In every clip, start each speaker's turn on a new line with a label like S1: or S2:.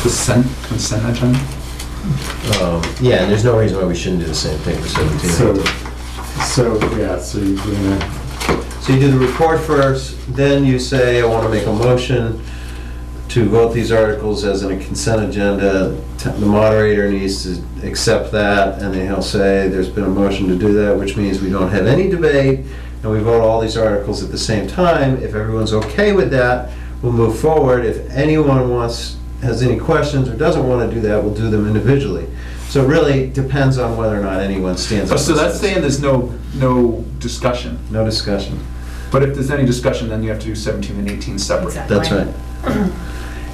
S1: Consent, consent agenda?
S2: Um, Yeah, and there's no reason why we shouldn't do the same thing for 17 and
S3: So,
S2: 18.
S3: so, yeah, so you're gonna,
S2: So you do the report first, then you say, I want to make a motion to vote these articles as in a consent agenda. T- The moderator needs to accept that, and then he'll say, there's been a motion to do that, which means we don't have any debate, and we vote all these articles at the same time. If everyone's okay with that, we'll move forward. If anyone wants, has any questions or doesn't want to do that, we'll do them individually. So it really depends on whether or not anyone stands
S1: So-
S2: up.
S1: Oh, So
S2: and
S1: that's
S2: says,
S1: saying there's no, no discussion,
S2: No discussion.
S1: but if there's any discussion, then you have to do 17 and 18 separate.
S4: Exactly.
S2: That's right.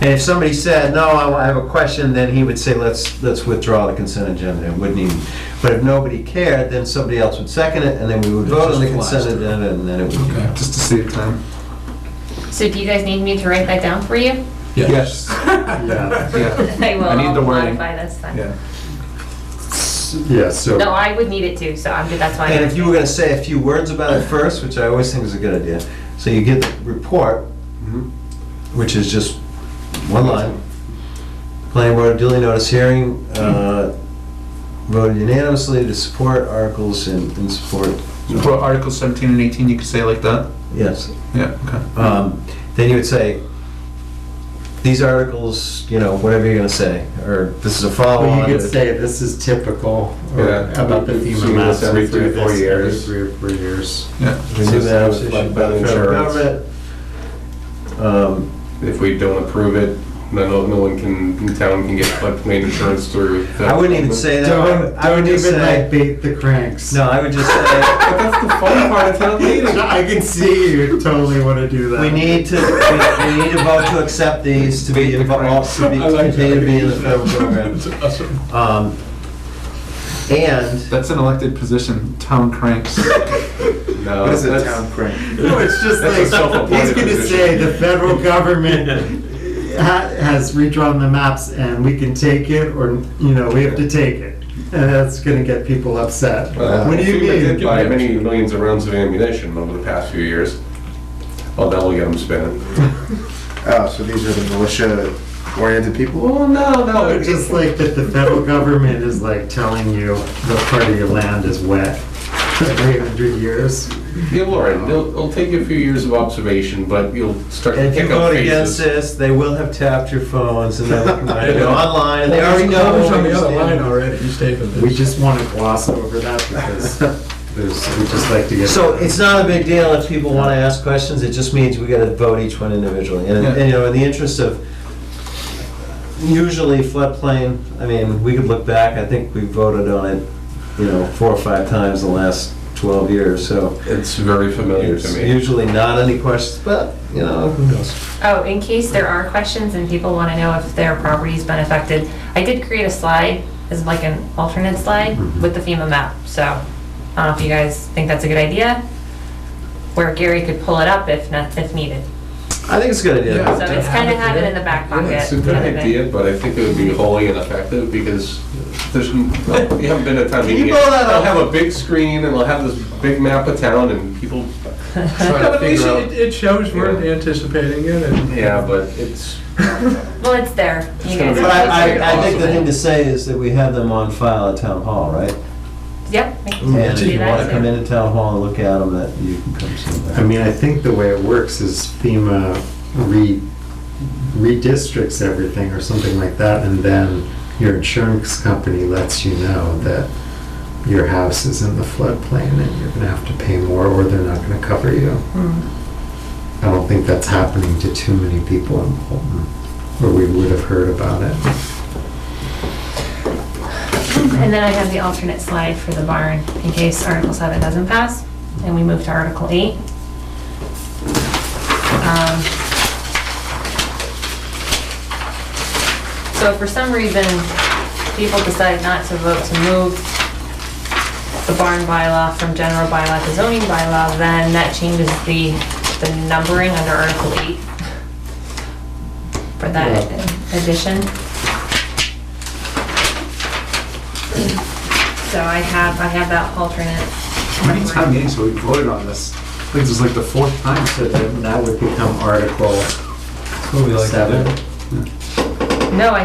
S2: And if somebody said, no, I I have a question, then he would say, let's, let's withdraw the consent agenda, It wouldn't even. But if nobody cared, then somebody else would second it, and then we would vote on the consent agenda, and then it would be.
S1: Just to save time.
S4: So do you guys need me to write that down for you?
S1: Yes.
S3: yeah,
S1: Yeah.
S4: I will
S1: I need the
S4: I'll
S1: wording.
S4: modify this then.
S1: Yeah.
S3: yeah, so.
S4: No, I would need it too, so I'm good, that's why. I-
S2: And if you were gonna say a few words about it first, which I always think is a good idea, so you get the report, which is just one line. Planning board duly notice hearing, uh, voted unanimously to support articles and, and support,
S1: For Article 17 and 18, you could say like that?
S2: yes.
S1: Yeah, okay.
S2: um, then you would say, these articles, you know, whatever you're gonna say, or this is a
S3: Well,
S2: follow-on.
S3: you could say this is typical or
S1: Yeah.
S3: about the
S5: So
S3: FEMA
S5: you
S3: maps
S5: listen
S3: every
S5: three
S3: three
S5: or
S3: or
S5: four years.
S3: Three or four years.
S1: Yeah.
S2: We do that with
S5: Like
S2: like, the federal
S5: insurance.
S2: government. Um,
S5: If we don't approve it, then no no one can, the town can get floodplain insurance through. the-
S2: I wouldn't even say that. I would-
S3: Don't,
S2: I would
S3: don't
S2: just
S3: even like
S2: say,
S3: bait the cranks.
S2: no, I would just say,
S1: But that's the fun part of town meeting.
S3: I can see you totally wanna do that.
S2: we need to, we- we need to vote to accept these to be involved, to be,
S1: I like
S2: continue to be in the
S1: that.
S2: federal program. Um, And,
S1: That's an elected position, town cranks.
S5: No, that's-
S1: crank?
S3: No, it's just
S5: That's a
S3: like,
S5: self-appointed
S3: he's gonna
S5: position.
S3: say the federal government ha- has redrawn the maps and we can take it or, you know, we have to take it. And that's gonna get people upset.
S5: Well,
S3: What do you
S5: FEMA did
S3: mean?
S5: Buy many millions of rounds of ammunition over the past few years. Oh, that'll get them spinning.
S6: Oh, so these are the militia-oriented people?
S5: Well, no, no,
S3: Or Just like that the federal government is like telling you the part of your land is wet every hundred years.
S5: Yeah, Lauren, it'll, it'll take you a few years of observation, but you'll start to
S2: if you
S5: pick up
S2: vote against
S5: faces.
S2: this, they will have tapped your phones and they'll come out,
S7: Yeah.
S2: go online, and they already know.
S7: Well, there's on the
S2: where
S7: other
S2: you
S7: line
S2: stand.
S7: already, he's taking this.
S3: We just wanna gloss over that because there's, we just like to get.
S2: So it's not a big deal if people want to ask questions, it just means we gotta vote each one individually. And, and, you know, in the interest of, usually floodplain, I mean, we could look back, I think we voted on it, you know, four or five times the last twelve years, so
S5: It's very familiar to
S2: it's
S5: me.
S2: usually not any questions, but, you know, who knows?
S4: Oh, in case there are questions and people want to know if their property's been affected, I did create a slide, as like an alternate slide with the FEMA map, so I don't know if you guys think that's a good idea, where Gary could pull it up if not, if needed.
S2: I think it's a good
S4: So
S2: idea.
S4: it's kind of have it in the back pocket.
S5: It's a good
S4: kind of thing.
S5: idea, but I think it would be wholly ineffective because there's, well, we haven't been at town
S2: Can you
S5: meeting.
S2: blow that
S5: yet. I'll
S2: up?
S5: have a big screen and I'll have this big map of town and people
S7: No,
S5: trying to
S7: but at least
S5: figure
S7: it,
S5: out.
S7: it shows we're anticipating it and.
S5: Yeah, but it's,
S4: Well, it's there. You
S5: gonna
S4: guys
S5: be-
S2: But
S4: have
S2: I,
S4: to-
S2: I, I think the thing to say is that we have them on file at town hall, right?
S4: Yep. I can
S2: And if
S4: do
S2: Mm-hmm. you
S4: that
S2: wanna
S4: too.
S2: come into town hall and look at them, that you can come see them.
S3: I mean, I think the way it works is FEMA re, redistricts everything or something like that, and then your insurance company lets you know that your house is in the floodplain and you're gonna have to pay more or they're not gonna cover you.
S4: Mm-hmm.
S3: I don't think that's happening to too many people in Bolton, or we would have heard about it.
S4: And then I have the alternate slide for the barn in case Article 7 doesn't pass and we move to Article 8. Um, So if for some reason, people decide not to vote to move the barn bylaw from general bylaw to zoning bylaw, then that changes the, the numbering under Article 8 for that addition. So I have, I have that alternate.
S1: How many town meetings have we voted on this? I think this is like the fourth time.
S3: So then that would become Article
S2: Who we like to do?
S3: seven.
S4: No, I